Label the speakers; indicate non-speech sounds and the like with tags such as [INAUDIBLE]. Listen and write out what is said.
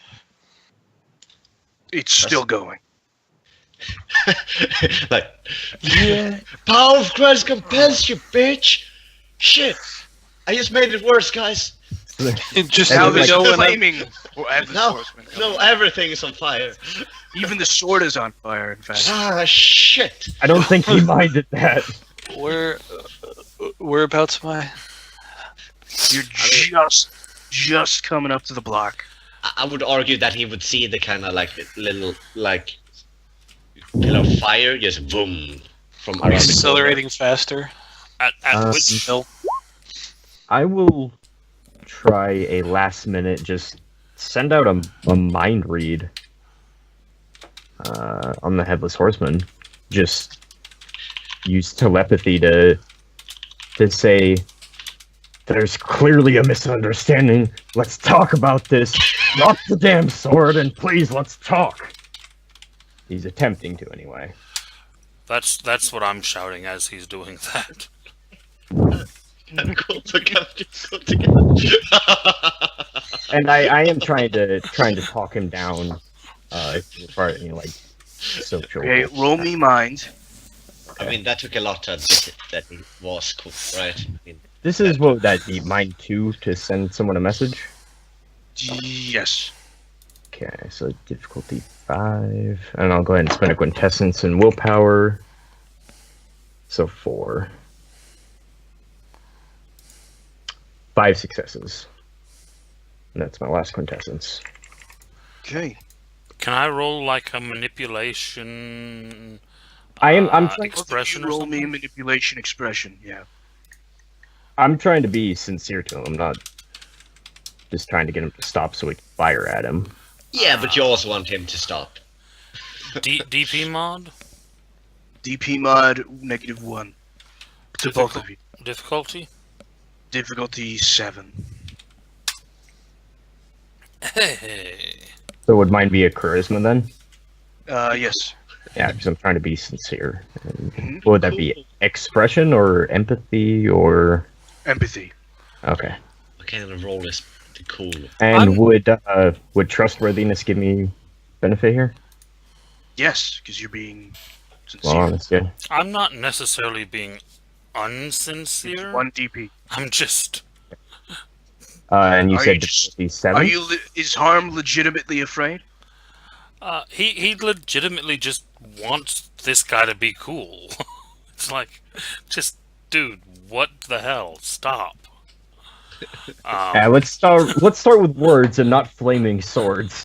Speaker 1: It's still going.
Speaker 2: [LAUGHS] like, [LAUGHS] power of Christ compels you, bitch. Shit, I just made it worse, guys.
Speaker 1: Just
Speaker 3: [LAUGHS]
Speaker 4: And
Speaker 1: now
Speaker 4: it's
Speaker 1: they
Speaker 4: like- [LAUGHS]
Speaker 1: know when I'm,
Speaker 2: Flaming. No, no, everything is on fire.
Speaker 1: even the sword is on fire. In fact,
Speaker 2: Ah, shit.
Speaker 4: I don't think [LAUGHS] he minded that.
Speaker 3: Where, uh, whereabouts am I?
Speaker 1: you're just just coming up to the block.
Speaker 2: I I would argue that he would see the kind of like little like pillar of fire just boom from around the corner. [LAUGHS]
Speaker 3: Accelerating faster.
Speaker 5: At, at
Speaker 4: Um,
Speaker 5: which
Speaker 3: Hill.
Speaker 4: I will try a last minute. Just send out a, a mind read uh, on the headless horseman. Just use telepathy to to say there's clearly a misunderstanding. Let's talk about this. Drop the damn sword and please let's talk. He's attempting to anyway.
Speaker 5: that's that's what I'm shouting as he's doing [LAUGHS] that.
Speaker 2: Go together, go together.
Speaker 4: and I, I am trying to trying to talk him down uh as far as you know, like social
Speaker 1: Okay, roll me mind.
Speaker 2: [LAUGHS] I mean, that took a lot to admit it, that he was cool, right? I mean,
Speaker 4: this is what would that be mind two to send someone a message
Speaker 1: Yes.
Speaker 4: okay so difficulty five and i'll go ahead and spend a quintessence and willpower so four five successes and that's my last quintessence
Speaker 1: Okay.
Speaker 5: Can I roll like a manipulation?
Speaker 4: i am i'm
Speaker 5: uh,
Speaker 4: trying
Speaker 5: expression.
Speaker 1: You
Speaker 5: Or
Speaker 1: roll me
Speaker 5: something?
Speaker 1: manipulation expression. Yeah.
Speaker 4: I'm trying to be sincere to him. I'm not just trying to get him to stop so we can fire at him.
Speaker 2: yeah, but you also want him to stop.
Speaker 5: D- DP mod
Speaker 1: DP mod negative one to both of you.
Speaker 5: difficulty.
Speaker 1: Difficulty seven.
Speaker 5: Hey,
Speaker 4: So would mine be a charisma then?
Speaker 1: Uh, yes.
Speaker 4: Yeah, because I'm trying to be sincere. And
Speaker 1: Mhm.
Speaker 4: what would that be? Expression or empathy or
Speaker 1: Empathy.
Speaker 4: okay?
Speaker 2: What kind of role is the cool?
Speaker 4: And
Speaker 3: I'm-
Speaker 4: would uh, would trustworthiness give me benefit here?
Speaker 1: Yes, because you're being sincere.
Speaker 4: Well, that's good.
Speaker 5: I'm not necessarily being unsincere.
Speaker 1: One DP.
Speaker 5: I'm just
Speaker 4: Uh, and you
Speaker 1: Are you
Speaker 4: said
Speaker 1: just-
Speaker 4: difficulty seven.
Speaker 1: Are you? le- Is harm legitimately afraid?
Speaker 5: uh, he he legitimately just wants this guy to be cool. [LAUGHS] it's like, just dude, what the hell? Stop. Um,
Speaker 4: Yeah, let's start. let's start with words and not flaming swords.